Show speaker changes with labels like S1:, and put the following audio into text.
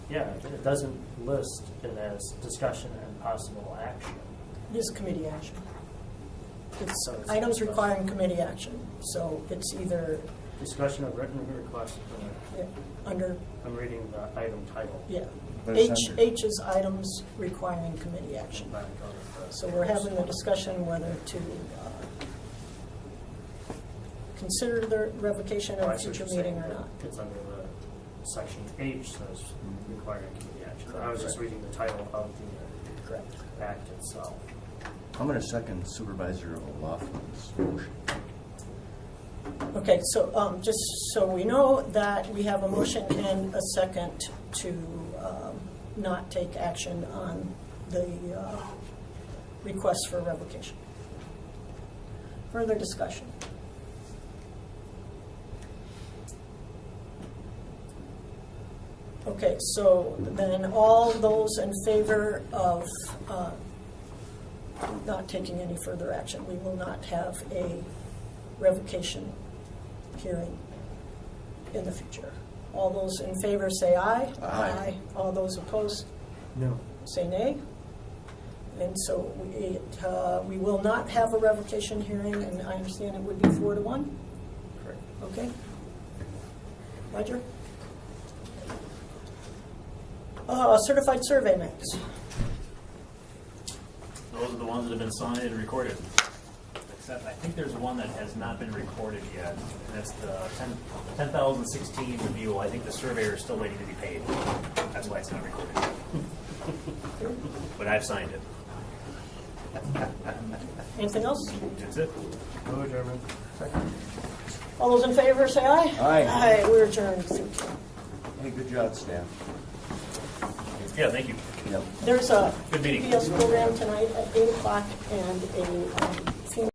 S1: Yeah, it doesn't list it as discussion and possible action.
S2: It is committee action. It's
S1: So it's-
S2: items requiring committee action, so it's either
S1: Discussion of written requests, uh,
S2: yeah, under,
S1: I'm reading the item title.
S2: yeah.
S3: But
S2: H,
S3: it's under-
S2: H is items requiring committee action.
S1: Back on the-
S2: So we're having a discussion whether to uh, consider the revocation
S1: Oh,
S2: at
S1: I
S2: a
S1: see what
S2: future
S1: you're saying.
S2: meeting or not.
S1: It's under the section H says requiring committee action. I was just reading the title of the
S2: Correct.
S1: uh, act itself.
S3: I'm gonna second Supervisor O'Loughlin's motion.
S2: Okay, so um, just so we know that we have a motion and a second to um, not take action on the uh, request for revocation. Further discussion? Okay, so then all those in favor of uh, not taking any further action, we will not have a revocation hearing in the future. All those in favor say aye.
S3: Aye.
S2: All those opposed
S1: No.
S2: say nay. And so we- it, uh, we will not have a revocation hearing, and I understand it would be four to one?
S1: Correct.
S2: Okay. Roger? Uh, Certified survey maps.
S4: Those are the ones that have been signed and recorded. Except I think there's one that has not been recorded yet, and that's the 10 10,016 review. I think the surveyor is still waiting to be paid. That's why it's not recorded. But I've signed it.
S2: Anything else?
S4: That's it.
S1: Hello, Chairman.
S2: All those in favor, say aye.
S3: Aye.
S2: Aye, we're adjourned. Thank you.
S3: Hey, good job, staff.
S4: Yeah, thank you.
S3: Yep.
S2: There's a
S4: Good meeting.
S2: PBS program tonight at eight o'clock and a um,